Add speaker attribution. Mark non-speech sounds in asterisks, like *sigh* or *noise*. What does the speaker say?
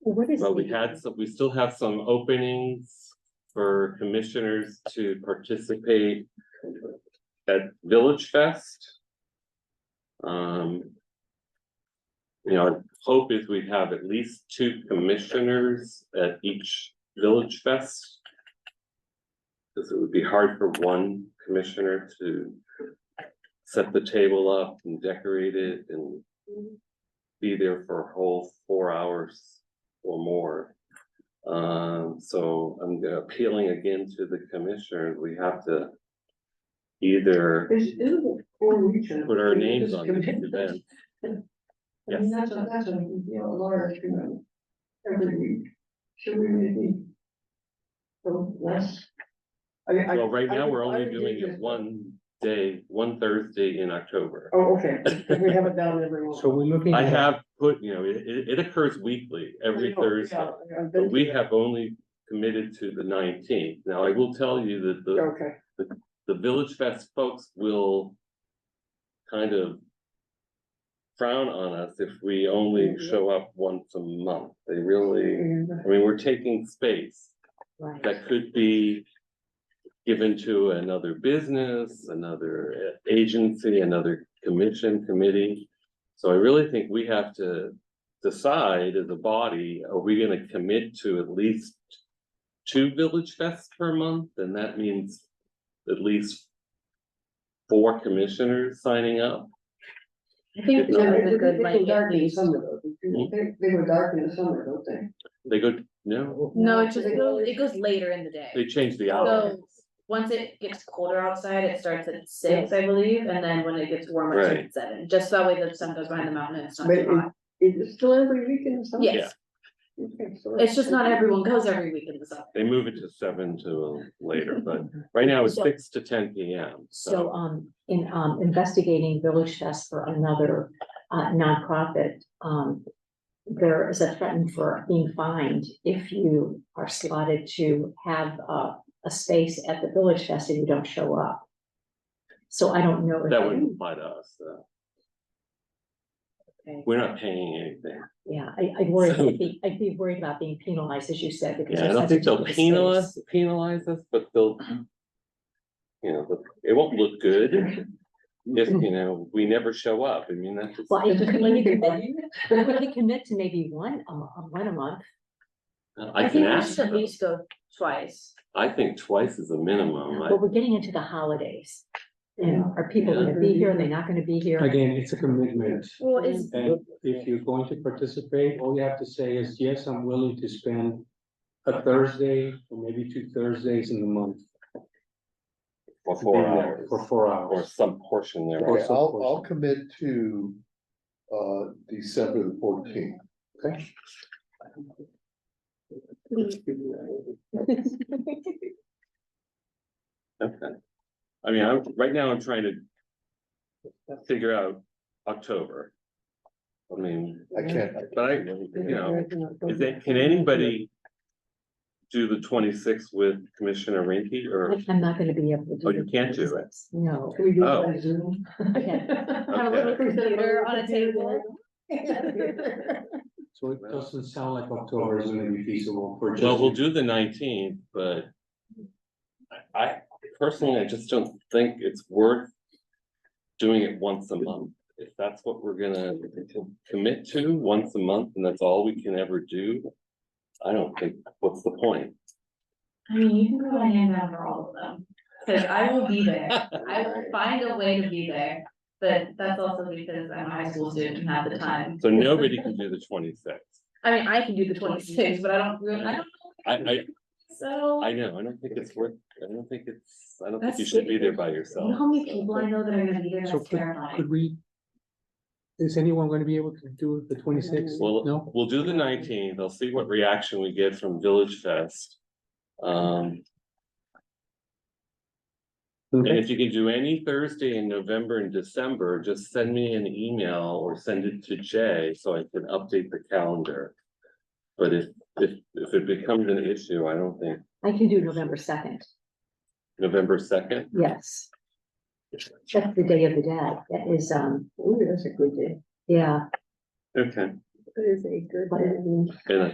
Speaker 1: What is?
Speaker 2: But we
Speaker 1: the-
Speaker 2: had some, we still have some openings for commissioners to participate at Village Fest. Um. You know, our hope is we have at least two commissioners at each Village Fest. Cause it would be hard for one commissioner to set the table up and decorate it and be there for a whole four hours or more. Um, so I'm appealing again to the commissioners, we have to either
Speaker 3: Is, is it for region?
Speaker 2: put our names on this event.
Speaker 3: I mean, that's a, that's a, you know, a large, you know, every week. Should we maybe? So less. I mean, I.
Speaker 2: Well, right
Speaker 3: I
Speaker 2: now,
Speaker 3: would-
Speaker 2: we're
Speaker 3: I
Speaker 2: only
Speaker 3: would
Speaker 2: doing
Speaker 3: do
Speaker 2: it
Speaker 3: this.
Speaker 2: one day, one Thursday in October.
Speaker 3: Oh, okay, we have it down every one.
Speaker 4: So we're looking.
Speaker 2: I
Speaker 4: at-
Speaker 2: have put, you know, it, it, it occurs weekly, every
Speaker 3: I know,
Speaker 2: Thursday,
Speaker 3: Oh, yeah, I've been-
Speaker 2: but we have only committed to the nineteenth. Now, I will tell you that the
Speaker 3: Okay,
Speaker 2: the Village Fest folks will kind of frown on us if we only show up once a month. They really,
Speaker 3: and
Speaker 2: I mean, we're taking space
Speaker 1: Right.
Speaker 2: that could be given to another business, another agency, another commission, committee. So I really think we have to decide as a body, are we gonna commit to at least two Village Fests per month? And that means at least four commissioners signing up.
Speaker 1: I think
Speaker 2: No,
Speaker 1: that
Speaker 3: They
Speaker 1: was a good,
Speaker 3: they
Speaker 1: like,
Speaker 3: go dark in the
Speaker 1: indication.
Speaker 3: summer, though.
Speaker 2: Hmm?
Speaker 3: They, they go dark in the summer, don't they?
Speaker 2: They go, no,
Speaker 1: No, it just
Speaker 3: They
Speaker 1: goes,
Speaker 3: always-
Speaker 1: it goes later in the day.
Speaker 2: they change the hour.
Speaker 1: So, once it gets colder outside, it starts at six, I believe, and then when it gets warmer, it starts at seven, just so that way the sun goes behind the mountain and it's not
Speaker 3: But
Speaker 1: too hot.
Speaker 3: Is it still every week in the summer?
Speaker 1: Yes,
Speaker 3: Okay, so-
Speaker 1: it's just not everyone goes every week in the summer.
Speaker 2: They move it to seven to later, but right now it's
Speaker 5: So-
Speaker 2: six to ten P M.
Speaker 5: So, um, in, um, investigating Village Fest for another uh, nonprofit, um. There is a threat for being fined if you are slotted to have, uh, a space at the Village Fest and you don't show up. So I don't know. if-
Speaker 2: That wouldn't apply to us, though.
Speaker 1: Okay.
Speaker 2: We're not paying anything.
Speaker 5: Yeah, I, I'd
Speaker 2: *laughs*
Speaker 5: worry, I'd be, I'd be worried about being penalized, as you said, because.
Speaker 2: Yeah, I
Speaker 5: there's
Speaker 2: don't
Speaker 5: such
Speaker 2: think
Speaker 5: a
Speaker 2: they'll
Speaker 5: big
Speaker 2: penalize,
Speaker 5: space.
Speaker 2: penalize us, but they'll. You know, but it won't look good if, you know, we never show up. I mean, that's. just-
Speaker 5: Well,
Speaker 3: It's
Speaker 5: if you
Speaker 3: just
Speaker 5: can, you
Speaker 3: like-
Speaker 2: *laughs*
Speaker 5: commit- you can commit to maybe one, uh, one a month,
Speaker 2: I can
Speaker 1: think we
Speaker 2: ask,
Speaker 1: should at
Speaker 2: them.
Speaker 1: least go twice.
Speaker 2: I think twice is a minimum. I-
Speaker 5: but we're getting into the holidays. And
Speaker 3: Yeah.
Speaker 5: are people gonna be here, are they not gonna be here?
Speaker 4: Again, it's a commitment.
Speaker 1: Well, is,
Speaker 4: And if you're going to participate, all you have to say is, yes, I'm willing to spend a Thursday or maybe two Thursdays in the month.
Speaker 2: For
Speaker 4: to be
Speaker 2: four
Speaker 4: there
Speaker 2: hours,
Speaker 4: For four
Speaker 2: or
Speaker 4: hours.
Speaker 2: some portion there.
Speaker 4: course,
Speaker 6: Okay,
Speaker 4: of
Speaker 6: I'll,
Speaker 4: course.
Speaker 6: I'll commit to, uh, December the fourteenth.
Speaker 4: Okay.
Speaker 2: Okay. I mean, I'm, right now I'm trying to figure out October. I mean,
Speaker 6: I can't,
Speaker 2: but I, you know, is it, can anybody do the twenty-sixth with Commissioner Rinky or,
Speaker 5: I'm not gonna be able to.
Speaker 2: oh, you can't do it?
Speaker 5: No.
Speaker 3: Can we do
Speaker 2: Oh.
Speaker 3: it by Zoom? *laughs*
Speaker 5: Have a little
Speaker 2: Okay.
Speaker 5: computer on a table.
Speaker 4: So it doesn't sound like October is gonna be feasible for just.
Speaker 2: Well, we'll do the nineteenth, but I, I personally, I just don't think it's worth doing it once a month. If that's what we're gonna commit to, once a month, and that's all we can ever do, I don't think, what's the point?
Speaker 1: I mean, you can go and hand down for all of them, cause I will be there, I will find a way to be there. But that's also because I'm a high school student and have the time.
Speaker 2: So nobody can do the twenty-sixth.
Speaker 1: I mean, I can do the twenty-six, but I don't, really- I don't.
Speaker 2: I, I,
Speaker 1: So.
Speaker 2: I know, I don't think it's worth, I don't think it's, I don't think you
Speaker 1: That's
Speaker 2: should be there
Speaker 1: scary.
Speaker 2: by
Speaker 1: You know
Speaker 2: yourself.
Speaker 1: how many people I know that are gonna be there,
Speaker 4: So
Speaker 1: that's
Speaker 4: could, could
Speaker 1: terrifying.
Speaker 4: we? Is anyone gonna be able to do the twenty-sixth?
Speaker 2: Well,
Speaker 4: No?
Speaker 2: we'll do the nineteenth, I'll see what reaction we get from Village Fest. Um, And if you can do any Thursday in November and December, just send me an email or send it to Jay so I can update the calendar. But if, if, if it becomes an issue, I don't think
Speaker 5: I can do November second,
Speaker 2: November second,
Speaker 5: yes. That's the day of the dead, that is, um,
Speaker 3: Ooh, that's a good day.
Speaker 5: yeah,
Speaker 2: okay.
Speaker 3: That is a good
Speaker 5: but
Speaker 2: And I